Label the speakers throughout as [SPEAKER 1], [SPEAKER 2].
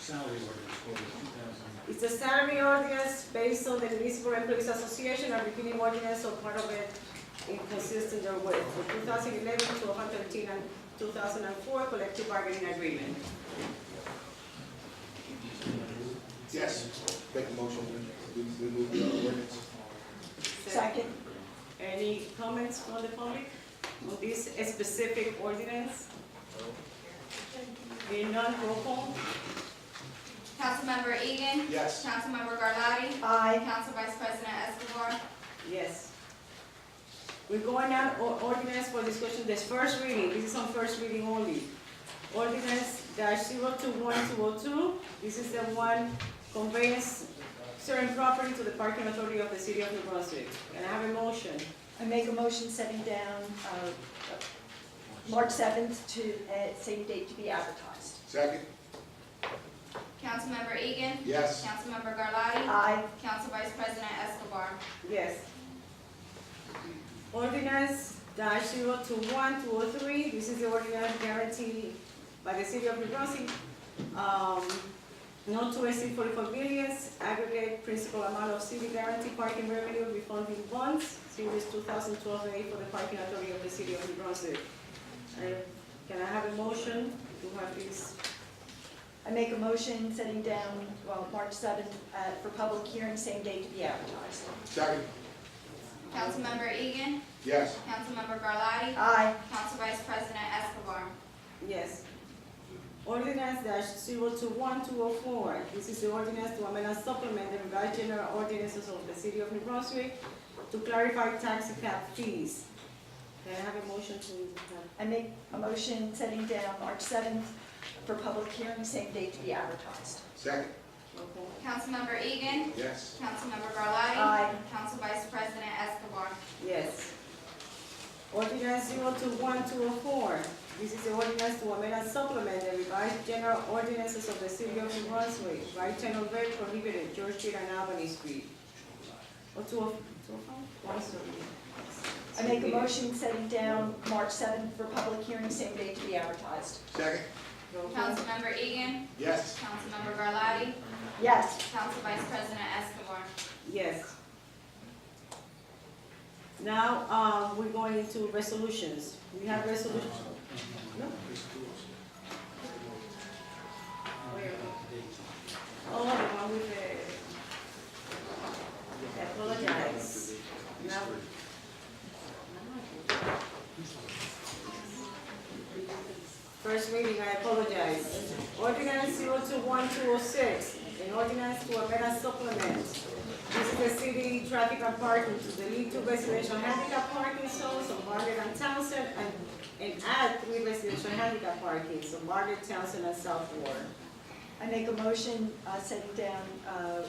[SPEAKER 1] salary ordinance for two thousand.
[SPEAKER 2] It's a salary ordinance based on the Municipal Employees Association, our beginning ordinance, so part of it inconsistent or with for 2011 to 113 and 2004 collective bargaining agreement.
[SPEAKER 3] Yes. Make a motion, we, we move the ordinance.
[SPEAKER 2] Second. Any comments from the public on this specific ordinance? Being none, roll call.
[SPEAKER 4] Councilmember Egan.
[SPEAKER 3] Yes.
[SPEAKER 4] Councilmember Garlotti.
[SPEAKER 2] Aye.
[SPEAKER 4] Council Vice President Escobar.
[SPEAKER 2] Yes. We're going on o- ordinance for discussion, this first reading, this is on first reading only. Ordinance dash zero two one two oh two, this is the one conveyance certain property to the parking authority of the city of New Brunswick. And I have a motion,
[SPEAKER 5] I make a motion setting down uh, March 7th to, uh, same date to be advertised.
[SPEAKER 3] Second?
[SPEAKER 4] Councilmember Egan.
[SPEAKER 3] Yes.
[SPEAKER 4] Councilmember Garlotti.
[SPEAKER 5] Aye.
[SPEAKER 4] Council Vice President Escobar.
[SPEAKER 2] yes. Ordinance dash zero two one two oh three, this is the ordinance guaranteed by the city of New Brunswick, um, not to exceed forty-four billions, aggregate principal amount of city guarantee parking revenue refunding bonds, series two thousand twelve A for the parking authority of the city of New Brunswick. And Can I have a motion to have this,
[SPEAKER 5] I make a motion setting down, well, March 7th uh, for public hearing, same date to be advertised.
[SPEAKER 3] Second?
[SPEAKER 4] Councilmember Egan.
[SPEAKER 3] Yes.
[SPEAKER 4] Councilmember Garlotti.
[SPEAKER 5] Aye.
[SPEAKER 4] Council Vice President Escobar.
[SPEAKER 2] yes? Ordinance dash zero two one two oh four, this is the ordinance to amend and supplement the revised general ordinances of the city of New Brunswick to clarify tax cap fees. Can I have a motion to uh, have
[SPEAKER 5] I make a motion setting down March 7th for public hearing, same date to be advertised.
[SPEAKER 3] Second?
[SPEAKER 2] Okay.
[SPEAKER 4] Councilmember Egan.
[SPEAKER 3] Yes.
[SPEAKER 4] Councilmember Garlotti.
[SPEAKER 5] Aye.
[SPEAKER 4] Council Vice President Escobar.
[SPEAKER 2] Yes. Ordinance 021204, this is the ordinance to amend and supplement the revised general ordinances of the city of New Brunswick, right turn of way prohibited, George Street and Albany Street. Oh, Or 2005?
[SPEAKER 5] I make a motion setting down March 7th for public hearing, same date to be advertised.
[SPEAKER 3] Second?
[SPEAKER 4] Councilmember Egan.
[SPEAKER 3] Yes.
[SPEAKER 4] Councilmember Garlotti.
[SPEAKER 5] Yes.
[SPEAKER 4] Council Vice President Escobar.
[SPEAKER 2] Yes. Now, uh, we're going into resolutions. We have resolutions.
[SPEAKER 1] Uh,
[SPEAKER 2] No? Oh, the one with the, I apologize. Now. First reading, I apologize. Ordinance zero two one two oh six, an ordinance to amend and supplement. This is the city traffic and parking to delete two residential handicap parking zones on Margaret and Townsend and, and add three residential handicap parking, so Margaret, Townsend, and South Ward.
[SPEAKER 5] I make a motion uh, setting down uh,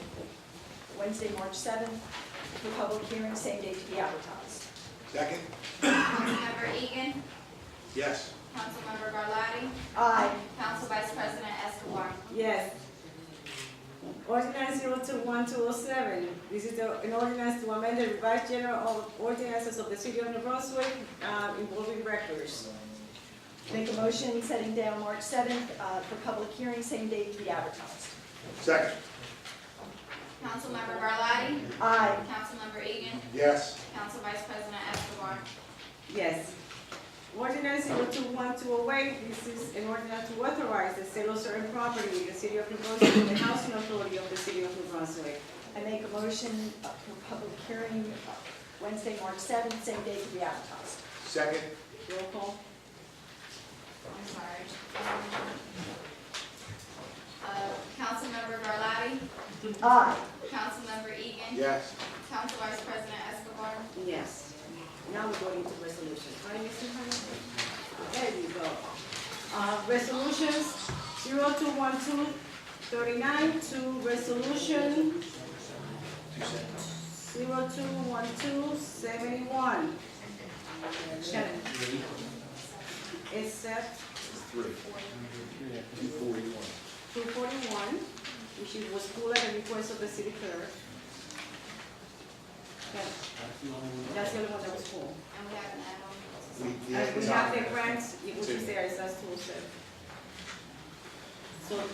[SPEAKER 5] Wednesday, March 7th for public hearing, same date to be advertised.
[SPEAKER 3] Second?
[SPEAKER 4] Councilmember Egan.
[SPEAKER 3] Yes.
[SPEAKER 4] Councilmember Garlotti.
[SPEAKER 5] Aye.
[SPEAKER 4] Council Vice President Escobar.
[SPEAKER 2] Yes. Ordinance zero two one two oh seven, this is the- an ordinance to amend the revised general of ordinances of the city of New Brunswick uh, involving records.
[SPEAKER 5] Make a motion setting down March 7th uh, for public hearing, same date to be advertised.
[SPEAKER 3] Second?
[SPEAKER 4] Councilmember Garlotti.
[SPEAKER 5] Aye.
[SPEAKER 4] Councilmember Egan.
[SPEAKER 3] Yes.
[SPEAKER 4] Council Vice President Escobar.
[SPEAKER 2] Yes. Ordinance zero two one two oh eight, this is an ordinance to authorize the sale of certain property in the city of New Brunswick to the housing authority of the city of New Brunswick.
[SPEAKER 5] I make a motion uh, for public hearing uh, Wednesday, March 7th, same date to be advertised.
[SPEAKER 3] Second?
[SPEAKER 2] Roll call.
[SPEAKER 4] I'm sorry. Uh, Councilmember Garlotti.
[SPEAKER 5] Aye.
[SPEAKER 4] Councilmember Egan.
[SPEAKER 3] Yes.
[SPEAKER 4] Council Vice President Escobar.
[SPEAKER 2] Yes. Now we're going into resolutions. Right, Mr. Hunter? There you go. Uh, resolutions, zero two one two thirty-nine to resolution zero two one two seventy-one. Shannon. Except
[SPEAKER 3] Three. Two forty-one.
[SPEAKER 2] two forty-one, which was pulled at the request of the city clerk. Okay, That's the only one that was pulled.
[SPEAKER 4] And we have an add-on.
[SPEAKER 3] We, we
[SPEAKER 2] Uh,
[SPEAKER 3] have.
[SPEAKER 2] We have the grants, which
[SPEAKER 3] Two.
[SPEAKER 2] is there, it's as Tool said. So